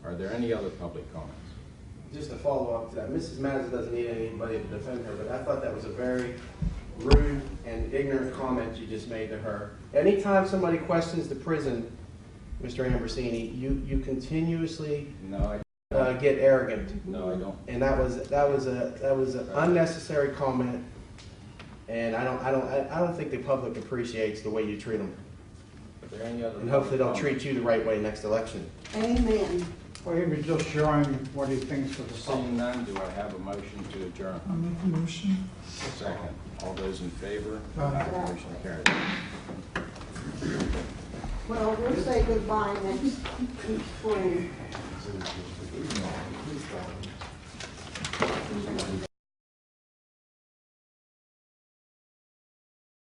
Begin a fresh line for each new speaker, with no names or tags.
there any other public comments?
Just to follow up to that, Mrs. Madison doesn't need anybody to defend her, but I thought that was a very rude and ignorant comment you just made to her. Anytime somebody questions the prison, Mr. Ambrosini, you, you continuously
No, I,
uh, get arrogant.
no, I don't.
And that was, that was a, that was an unnecessary comment. And I don't, I don't, I I don't think the public appreciates the way you treat them.
Are there any other?
And hopefully they'll
public
treat you the right way next election.
Amen.
Well, he was just showing what he thinks for the
comments?
city.
Seeing none, do I have a motion to adjourn?
I make a motion.
Second. All those in favor?
Aye.
Motion carried.
Well, we'll say goodbye next spring.